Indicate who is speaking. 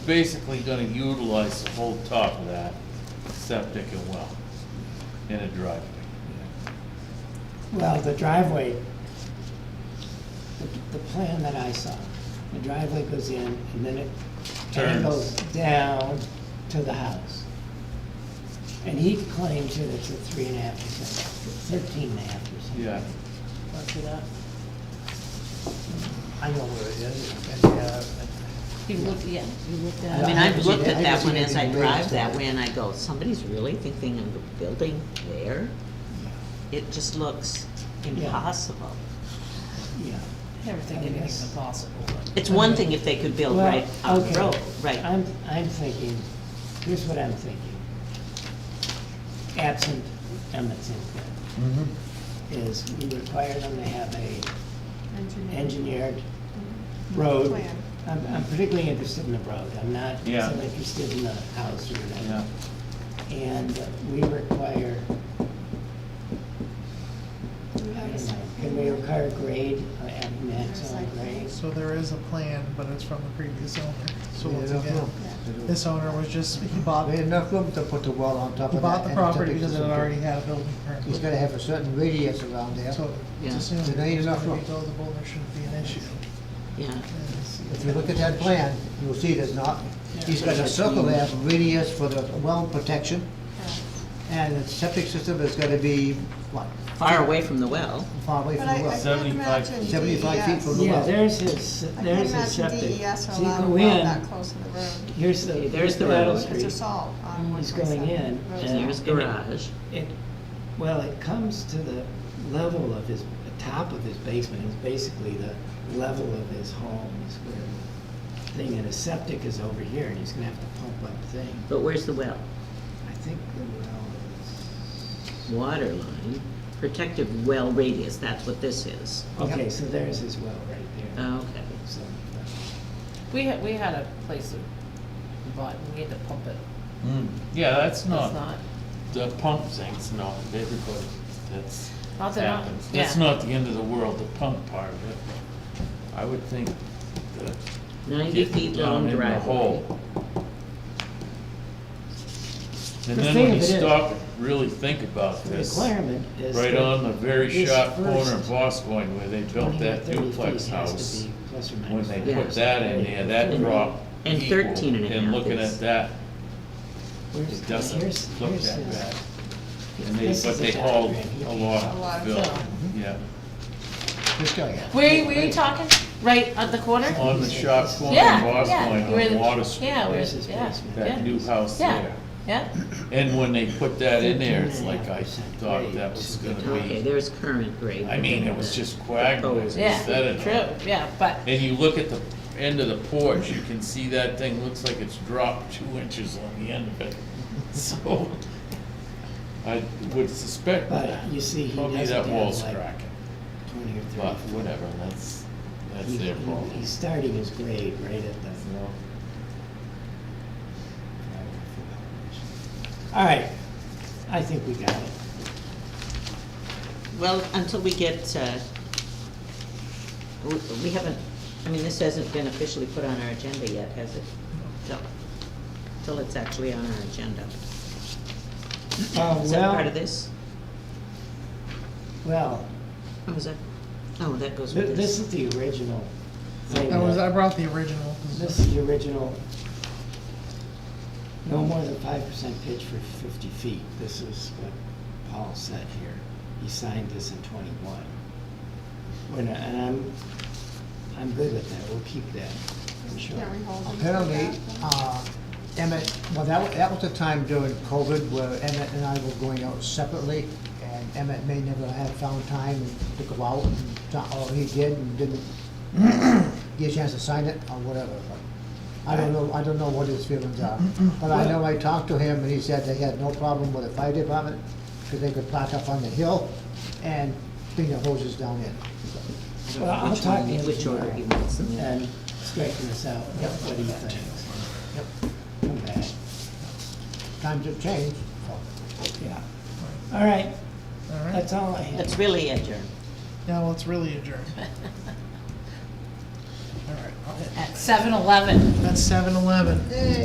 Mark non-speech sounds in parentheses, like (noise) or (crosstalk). Speaker 1: basically gonna utilize the whole top of that septic and well in a driveway.
Speaker 2: Well, the driveway, the- the plan that I saw, the driveway goes in and then it
Speaker 1: Turns.
Speaker 2: angles down to the house. And he claims that it's a three and a half percent, thirteen and a half percent.
Speaker 1: Yeah,
Speaker 2: Close to that. I know where it is, and, uh,
Speaker 3: You looked, yeah, you looked at
Speaker 2: Yeah,
Speaker 3: it.
Speaker 4: I mean,
Speaker 2: I
Speaker 4: I've
Speaker 2: haven't
Speaker 4: looked
Speaker 2: seen- I
Speaker 4: at
Speaker 2: haven't
Speaker 4: that one
Speaker 2: seen
Speaker 4: as I
Speaker 2: anything
Speaker 4: drive
Speaker 2: raised
Speaker 4: that
Speaker 2: on it.
Speaker 4: way, and I go, somebody's really thinking of a building there? It just looks impossible.
Speaker 2: yeah.
Speaker 3: Never think
Speaker 2: I
Speaker 3: anything's
Speaker 2: guess.
Speaker 3: impossible.
Speaker 4: It's one thing if they could build
Speaker 2: Well,
Speaker 4: right on
Speaker 2: okay.
Speaker 4: the road, right?
Speaker 2: I'm, I'm thinking, here's what I'm thinking. Absent Emmett's input, is we require them to have a engineered
Speaker 5: Mm-hmm.
Speaker 2: road.
Speaker 5: Plan.
Speaker 2: I'm, I'm particularly interested in the road, I'm not
Speaker 1: Yeah.
Speaker 2: so interested in the house or
Speaker 1: yeah,
Speaker 2: whatever. And we require,
Speaker 5: We
Speaker 2: I
Speaker 5: have a
Speaker 2: don't know,
Speaker 5: site
Speaker 2: can we
Speaker 5: plan.
Speaker 2: require grade, uh, at max on grade?
Speaker 6: So there is a plan, but it's from the previous owner. So
Speaker 7: They
Speaker 6: once
Speaker 7: don't
Speaker 6: again,
Speaker 7: know.
Speaker 6: this owner was just, he bought,
Speaker 7: They had
Speaker 6: he
Speaker 7: enough room to put the well on top of that.
Speaker 6: bought the
Speaker 7: and
Speaker 6: property
Speaker 7: septic
Speaker 6: because it
Speaker 7: system.
Speaker 6: already had a building permit.
Speaker 7: He's gotta have a certain radius around there.
Speaker 6: So
Speaker 4: Yeah.
Speaker 6: it's assumed
Speaker 7: There ain't
Speaker 6: it's
Speaker 7: enough
Speaker 6: gonna be
Speaker 7: room.
Speaker 6: buildable, there shouldn't be an issue.
Speaker 4: Yeah,
Speaker 7: If you look at that plan, you'll see there's not, he's got a circle there, radius for the well protection, and the septic system is gonna be, what,
Speaker 4: far away from the well.
Speaker 7: far away
Speaker 5: But
Speaker 7: from
Speaker 5: I,
Speaker 7: the
Speaker 5: I
Speaker 7: well?
Speaker 5: can't
Speaker 1: 75
Speaker 5: imagine DES.
Speaker 7: 75 feet from the
Speaker 2: Yeah,
Speaker 7: well.
Speaker 2: there's his,
Speaker 5: I can't
Speaker 2: there's his
Speaker 5: imagine
Speaker 2: septic.
Speaker 5: DES will
Speaker 2: So you
Speaker 5: allow a
Speaker 2: go
Speaker 5: well
Speaker 2: in,
Speaker 5: that close to the road.
Speaker 2: Here's the.
Speaker 4: There's
Speaker 2: here's
Speaker 4: the
Speaker 2: Battle
Speaker 4: road.
Speaker 5: Because
Speaker 2: Street.
Speaker 5: there's salt on one
Speaker 2: He's
Speaker 5: twenty-seven.
Speaker 2: going in,
Speaker 5: Road's
Speaker 2: and-
Speaker 4: There's garage.
Speaker 2: It, well, it comes to the level of his, the top of his basement is basically the level of his home is where the thing, and his septic is over here, and he's gonna have to pump up thing.
Speaker 4: But where's the well?
Speaker 2: I think the well is,
Speaker 4: Water line, protective well radius, that's what this is.
Speaker 2: okay, so there's his well right there.
Speaker 4: Okay.
Speaker 2: So,
Speaker 3: We had, we had a place that bought, we had to pump it.
Speaker 2: Hmm.
Speaker 1: yeah, that's not,
Speaker 3: That's not,
Speaker 1: the pump thing's not, everybody, that's
Speaker 3: Not that not-
Speaker 1: happens. That's
Speaker 3: yeah.
Speaker 1: not the end of the world, the pump part of it. I would think that
Speaker 4: Ninety
Speaker 1: getting
Speaker 4: feet
Speaker 1: down
Speaker 4: long
Speaker 1: in the
Speaker 4: driveway.
Speaker 1: hole. And
Speaker 2: The
Speaker 1: then
Speaker 2: thing
Speaker 1: when you
Speaker 2: of it is-
Speaker 1: stop and really think about
Speaker 2: The
Speaker 1: this.
Speaker 2: requirement is.
Speaker 1: Right
Speaker 2: that
Speaker 1: on the very
Speaker 2: this
Speaker 1: sharp corner of
Speaker 2: first
Speaker 1: Boscoigne where they
Speaker 2: 20
Speaker 1: built
Speaker 2: or
Speaker 1: that
Speaker 2: 30 feet
Speaker 1: duplex
Speaker 2: has to
Speaker 1: house.
Speaker 2: be plus or
Speaker 1: When
Speaker 2: minus
Speaker 1: they
Speaker 2: five.
Speaker 4: Yeah.
Speaker 1: put that in there, that
Speaker 4: And-
Speaker 1: dropped
Speaker 4: and
Speaker 1: equal.
Speaker 4: 13 and a half
Speaker 1: looking
Speaker 4: is-
Speaker 1: at that,
Speaker 2: Where's-
Speaker 1: it doesn't
Speaker 2: here's-
Speaker 1: look
Speaker 2: here's
Speaker 1: that
Speaker 2: his-
Speaker 1: bad. And they,
Speaker 2: this
Speaker 1: but
Speaker 2: is a
Speaker 1: they
Speaker 2: diagram
Speaker 1: hauled
Speaker 2: here.
Speaker 1: a
Speaker 5: A lot
Speaker 1: lot,
Speaker 5: of
Speaker 1: Bill,
Speaker 5: fill.
Speaker 1: yeah,
Speaker 7: This guy, yeah.
Speaker 3: where, where you talking? Right at the corner?
Speaker 1: on the sharp corner of
Speaker 3: Yeah, yeah. where
Speaker 1: Boscoigne
Speaker 3: the-
Speaker 1: on Water Street.
Speaker 3: Yeah, where,
Speaker 2: Where's his
Speaker 3: yeah,
Speaker 2: basement?
Speaker 1: That
Speaker 3: yeah,
Speaker 1: new house
Speaker 3: yeah,
Speaker 1: there.
Speaker 3: yeah.
Speaker 1: And when they put that in there, it's
Speaker 2: 13 and a
Speaker 1: like
Speaker 2: half
Speaker 1: I
Speaker 2: percent
Speaker 1: thought
Speaker 2: grade
Speaker 1: that was
Speaker 2: to the
Speaker 1: gonna
Speaker 4: Okay,
Speaker 1: be,
Speaker 4: there's current grade.
Speaker 1: I mean, it was just quagmires instead
Speaker 3: Yeah,
Speaker 1: of.
Speaker 3: true, yeah, but, (laughs)
Speaker 1: And you look at the end of the porch, you can see that thing looks like it's dropped two inches on the end of it. (laughs) So I would suspect that.
Speaker 2: But you see, he
Speaker 1: Probably
Speaker 2: doesn't
Speaker 1: that wall's
Speaker 2: have like
Speaker 1: cracking,
Speaker 2: twenty or
Speaker 1: but
Speaker 2: thirty. foot.
Speaker 1: whatever, that's, that's
Speaker 2: He-
Speaker 1: their
Speaker 2: he-
Speaker 1: problem.
Speaker 2: He's starting his grade right at the.
Speaker 1: you know?
Speaker 2: All right, I think we got it.
Speaker 4: Well, until we get, uh, we we haven't, I mean, this hasn't been officially put on our agenda yet, has it? Till- Till it's actually on our agenda.
Speaker 2: Uh,
Speaker 4: Is that part
Speaker 2: well,
Speaker 4: of this?
Speaker 2: well,
Speaker 4: Or was that, oh, that goes
Speaker 2: thi-
Speaker 4: with
Speaker 2: this
Speaker 4: this.
Speaker 2: is the original thing.
Speaker 6: I was, I
Speaker 2: that-
Speaker 6: brought the original, 'cause
Speaker 2: This is the original. No more than five percent pitch for fifty feet. This is what Paul said here. He signed this in twenty-one. When, I- and I'm, I'm good with that. We'll keep that, I'm sure.
Speaker 5: Can we hold them to
Speaker 7: Apparently,
Speaker 5: that?
Speaker 7: uh, Emmett, well, that, wa- that was the time during COVID where Emmett and I were going out separately, and Emmett may never have found time to go out, and so- or he did and didn't (coughs) get a chance to sign it, or whatever. but I don't know, I don't know what his feelings are, but I know I talked to him, and he said they had no problem with the fire department, because they could park up on the hill and bring their hoses down in.
Speaker 2: Well, I'll
Speaker 4: Which
Speaker 2: talk
Speaker 4: one-
Speaker 2: to him
Speaker 4: Which order he wants them in.
Speaker 2: and straighten this out, what do you think?
Speaker 7: Yep.
Speaker 2: Come back,
Speaker 7: Times have changed, so.
Speaker 2: yeah. All right,
Speaker 6: all right.
Speaker 2: that's all I have.
Speaker 4: That's really adjourned.
Speaker 6: Now it's really adjourned.
Speaker 7: all right. I'll-
Speaker 8: at seven eleven.
Speaker 7: That's seven eleven.